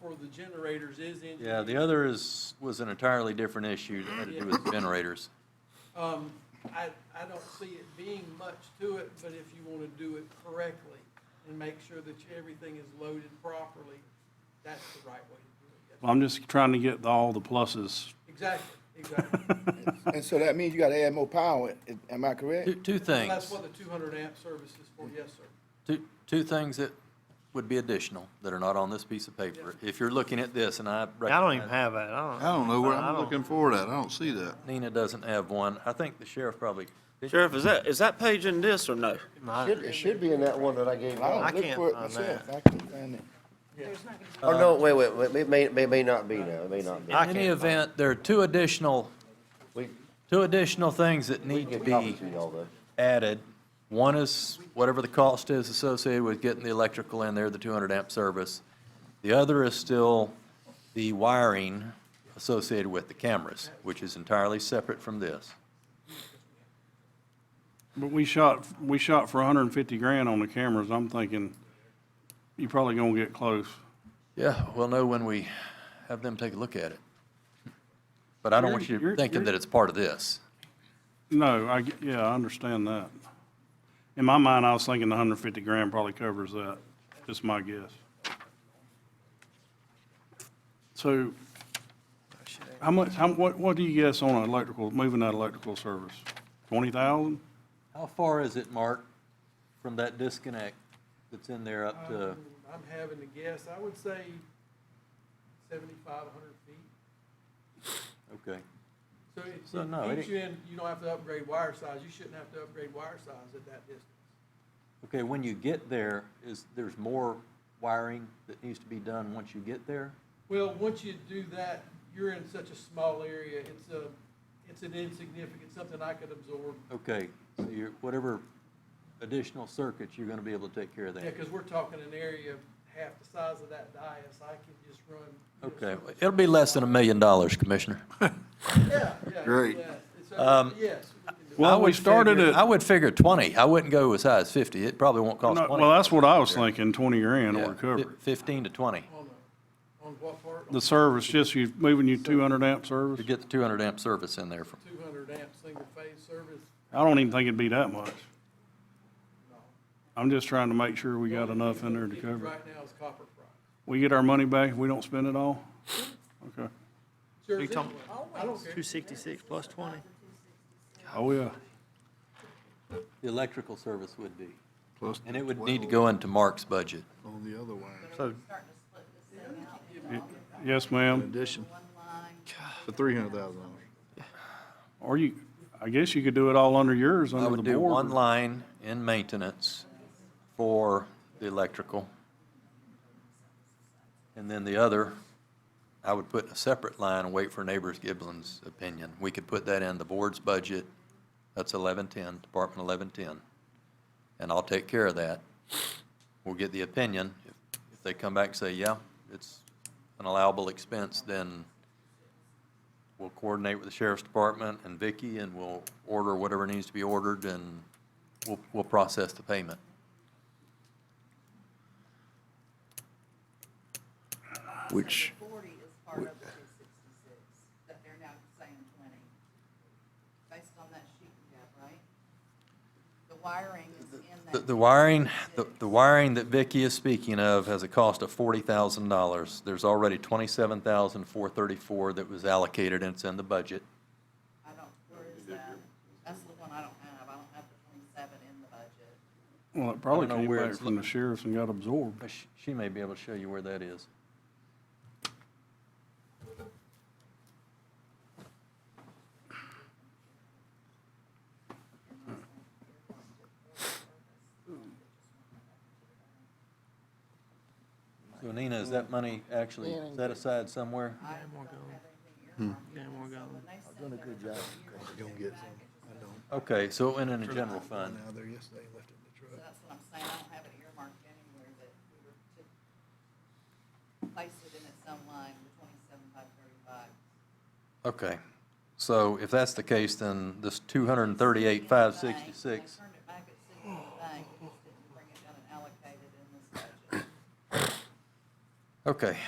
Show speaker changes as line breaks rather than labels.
for the generators is engineered.
Yeah, the other is, was an entirely different issue that had to do with generators.
Um, I, I don't see it being much to it, but if you wanna do it correctly and make sure that everything is loaded properly, that's the right way to do it. yes.
Well, I'm just trying to get all the pluses.
Exactly, exactly.
And so that means you gotta add more power, i- am I correct?
Two, two
That's
things,
what the two hundred amp service is for, yes, sir.
two, two things that would be additional that are not on this piece of paper. If you're looking at this, and I
I don't even
recognize
have that, I don't.
I don't know where, I'm
I don't-
looking forward at. I don't see that.
Nina doesn't have one, I think the sheriff probably,
Sheriff, is that, is that page in this or no?
Should, it should be in that one that I gave you.
I
Oh,
I
don't look
can't uh,
for it
find
myself, I can't find it.
Oh, no, wait, wait, wait, it may, may, may not be now, it may not be.
in any event, there are two additional,
We,
two additional things that
we
need to
can get
be
copies to y'all though.
added. One is whatever the cost is associated with getting the electrical in there, the 200 amp service. The other is still the wiring associated with the cameras, which is entirely separate from this.
But we shot, we shot for hundred and fifty grand on the cameras. I'm thinking, you probably gonna get close.
Yeah, we'll know when we have them take a look at it. But I don't want you
You're-
thinking
you're-
that it's part of this.
No, I, get- yeah, I understand that. In my mind, I was thinking the hundred and fifty grand probably covers that, just my guess. So, how much, how, what, what do you guess on an electrical, moving that electrical service? Twenty thousand?
How far is it, Mark, from that disconnect that's in there up to,
Um, I'm having to guess, I would say seventy-five, hundred feet.
okay.
So it-
So, no,
it
it
keeps you in, you don't have to upgrade wire size, you shouldn't have to upgrade wire size at that distance.
Okay, when you get there, is, there's more wiring that needs to be done once you get there?
Well, once you do that, you're in such a small area, it's a, it's an insignificant, something I could absorb.
Okay, so you're, whatever additional circuits, you're gonna be able to take care of
Yeah,
that.
because we're talking an area half the size of that dais, I can just run. you know,
Okay,
so-
it'll be less than a million dollars, Commissioner.
Yeah, yeah.
Great.
yeah. It's a-
Um,
Yes. we can do it.
Well,
I
we
would
started
figure-
at-
I would figure twenty, I wouldn't go as high as fifty, it probably won't cost
No,
twenty.
Well, that's what I was thinking, twenty grand or
Yeah,
cover
fif-
it.
Fifteen to twenty,
On the, on what part?
The service, just you moving your two hundred amp
to
service?
get the two hundred amp service in there from,
Two hundred amp, single phase service,
I don't even think it'd be that much.
no.
I'm just trying to make sure we got
The only
enough in there to
thing we're
cover it.
getting Right now is copper price.
We get our money back, we don't spend it all? Okay.
Sure,
You talking-
I don't care.
Two sixty-six plus twenty,
Oh, yeah.
the electrical service would be.
Plus
And it would need to
12
go into Mark's budget.
On the other one.
so
Yes, ma'am.
Addition. For three hundred thousand dollars.
Or you, I guess you could do it all under yours,
I
under
would
the
do one
board.
line in maintenance for the electrical. And then the other, I would put in a separate line and wait for neighbors Giblin's opinion. We could put that in the board's budget, that's eleven-ten, Department eleven-ten. And I'll take care of that. We'll get the opinion. If if they come back and say, yeah, it's an allowable expense, then we'll coordinate with the sheriff's department and Vicky, and we'll order whatever needs to be ordered, and we'll, we'll process the payment.
Which,
Forty is part of the two sixty-six, that they're now saying twenty, based on that sheet you got, right? The wiring is in
The,
that.
the wiring, the, the wiring that Vicky is speaking of has a cost of forty thousand dollars. There's already twenty-seven thousand four thirty-four that was allocated, and it's in the budget.
I don't, where is that? That's the one I don't have, I don't have the twenty-seven in the budget.
Well, it probably
I don't know
came
where
back
it's
from the
lo-
sheriff's and got absorbed.
But she- She may be able to show you where that is. So Nina, is that money actually set aside somewhere?
then we're going.
I've done a good job.
Gonna get some. I don't.
Okay, so it went in the general fund.
Went out there yesterday, left it in the
So
truck.
that's what I'm saying, I don't have it earmarked anywhere that we were to place it in at some line, the twenty-seven, five thirty-five.
Okay, so if that's the case, then this two hundred and thirty-eight, five sixty-six,
They turned it back at sixty in the bank, just didn't bring it down and allocate it in this budget.
okay.